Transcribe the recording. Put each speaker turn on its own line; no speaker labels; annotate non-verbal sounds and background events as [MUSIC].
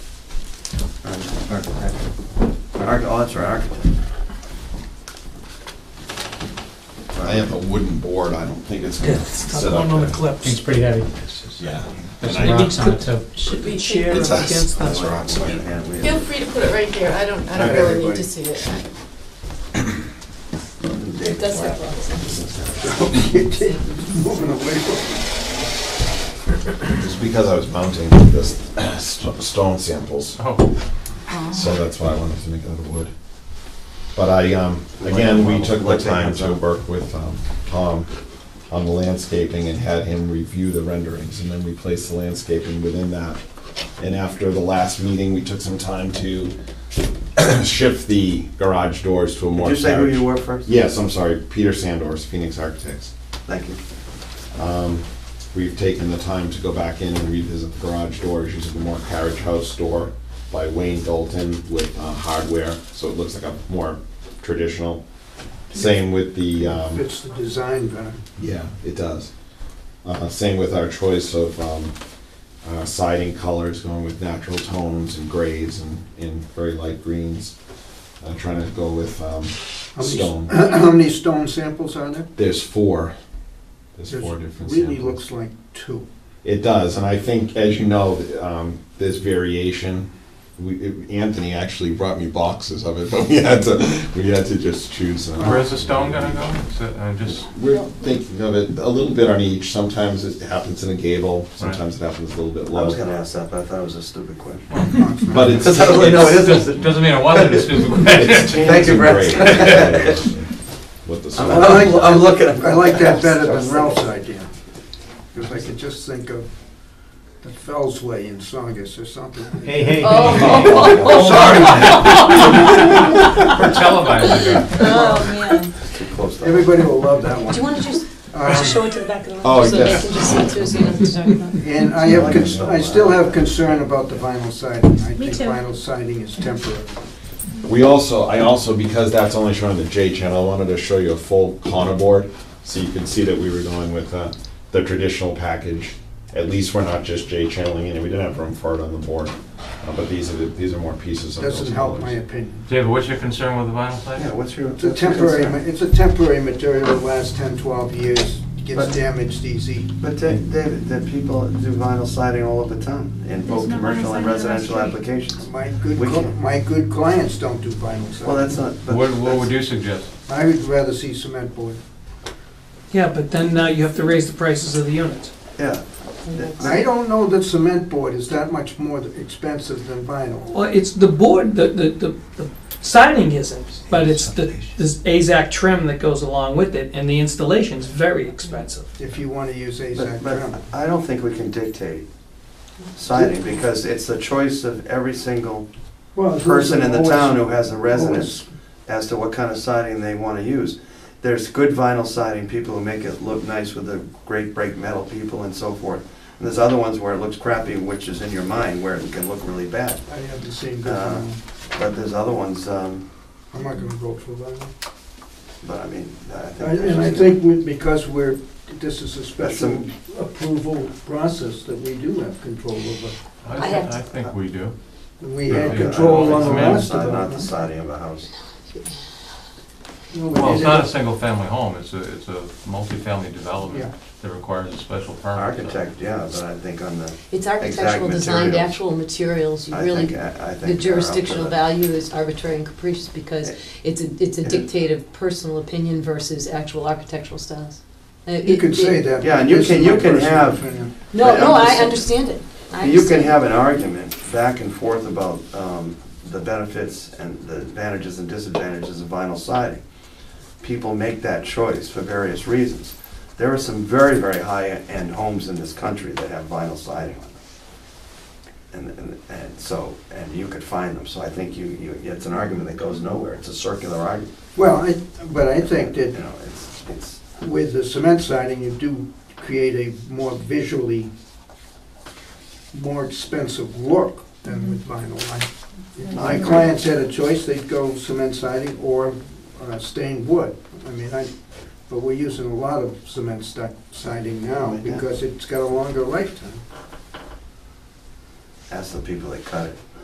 Arch- Oh, that's right, architect.
I have a wooden board, I don't think it's gonna
It's
sit
not
up
one on the
there.
clips.
It's pretty heavy.
Yeah. And
There's some
I-
rocks on it too.
Should be chair
It's
up
us.
against
That's
that.
rocks.
Yeah, we
Feel
have
free to put it right here, I don't, I don't
Okay,
really need
everybody.
to see it.
David
It does
Black.
have rocks.
[LAUGHS] Moving away from.
It's because I was mounting this [CLEARS THROAT] st- stone samples,
Oh,
so that's why I wanted to make it out of wood. But I, um, again, we took the time to work with um, Tom on the landscaping and had him review the renderings, and then we placed the landscaping within that. And after the last meeting, we took some time to [CLEARS THROAT] shift the garage doors to a more.
Did you say who
carriage-
you were first?
Yes, I'm sorry, Peter Sandors, Phoenix Architects.
Thank you.
We've taken the time to go back in and revisit the garage doors using the more carriage house door by Wayne Dalton with uh, hardware, so it looks like a more traditional. Same with the, um,
Fits the design better. [CLEARS THROAT]
yeah, it does. Uh, Same with our choice of um, uh, siding colors, going with natural tones and grays and, and very light greens. Uh, Trying to go with um,
How many-
stone.
How many stone samples are there?
There's four. There's
There's-
four different
Really
samples.
looks like
[LAUGHS]
two.
It does, and I think, as you know, th- um, there's variation. We, it- Anthony actually brought me boxes of it, but we had to, we had to just choose. uh,
Where's the stone gonna go? Is it, uh, just,
We're thinking of it a little bit on each. Sometimes it happens in a gable, sometimes it happens a little bit
I was
low.
gonna ask that, but I thought it was a stupid question.
But it's,
Because I was like, no, it
doesn't
isn't.
doesn't mean it wasn't a [LAUGHS] stupid
it's
question.
tans
Thank you,
and
Brett.
grays. What the.
I'm,
stone-
I'm I'm looking.
I like
[LAUGHS]
that better than Ralph's idea. Because I could just think of the Fells Way in Saugus or something.
hey, hey.
Oh,
We're televising it.
oh,
Too close to-
Everybody will love that
Do you
one.
want to just
Um,
show it to the back of the
Oh,
room?
So they
yes.
can just see too, so you don't have to talk about it.
And I have, cons- I still have concern about the vinyl siding. I
Me
think
too.
vinyl siding is temporary.
We also, I also, because that's only shown on the J channel, I wanted to show you a full Connor board, so you can see that we were going with uh, the traditional package. At least we're not just J channeling it, and we didn't have room for it on the board. Uh, But these are, the- these are more pieces of those
Doesn't help my
colors.
opinion.
David, what's your concern with the vinyl
Yeah,
siding?
what's your?
It's a temporary, ma- it's a temporary material that lasts 10, 12 years,
But-
gets damaged easy.
But Da- David, the people do vinyl siding all over the town in both
There's no vinyl
commercial and
siding on our
residential
street.
applications.
My good,
We
cl-
can't-
my good clients don't do vinyl
Well,
siding.
that's not. but
What, what
that's-
would you suggest?
I would rather see cement board.
Yeah, but then now you have to raise the prices of the units.
Yeah. [LAUGHS]
I don't know that cement board is that much more expensive than vinyl.
Well, it's the board, the, the, the the siding isn't, but it's the, this AZAC trim that goes along with it, and the installation's very expensive.
If you want to use AZAC
But but
trim.
I don't think we can dictate siding because it's the choice of every single person in the town who has a residence as to what kind of siding they want to use. There's good vinyl siding, people who make it look nice with the great break metal people and so forth. And there's other ones where it looks crappy, which is in your mind, where it can look really bad.
I have the same good
Uh,
vinyl.
But there's other ones, um,
I'm not gonna vote for vinyl.
but I mean, I think.
I- And I think we- because we're, this is a special
That's
approval process that we do have control over.
I
have
think,
to-
I think we do.
We
Yeah,
had
yeah,
control
I
on
don't
the
think cement
last of
Not the
it.
siding of a house.
No, we
Well, it's
didn't.
not a single-family home, it's a, it's a multifamily development
Yeah.
that requires a special permit. so-
Architect, yeah, but I think on the,
It's architectural design, the
materials.
actual materials, you
I think,
really,
I I think.
the jurisdictional
they're up
value is arbitrary and capricious because it's a, it's a dictate of personal opinion versus actual architectural styles. Uh,
You
it-
can
it-
say that.
Yeah, and
but
you
this
can-
is
you
my
can
personal
have-
opinion.
No,
But
no,
I'm
I
just-
understand it. I
for that. You can
understand.
have an argument back and forth about um, the benefits and the advantages and disadvantages of vinyl siding. People make that choice for various reasons. There are some very, very high-end homes in this country that have vinyl siding on them. And, and, and so, and you could find them, so I think you, you, it's an argument that goes nowhere, it's a circular argument.
Well, I, but I think
You
that
know, it's, it's.
with the cement siding, you do create a more visually, more expensive look than with vinyl. I- If my clients had a choice, they'd go cement siding or uh, stained wood. I mean, I, but we're using a lot of cement sti- siding now
Like that.
because it's got a longer lifetime.
Ask the people that cut it.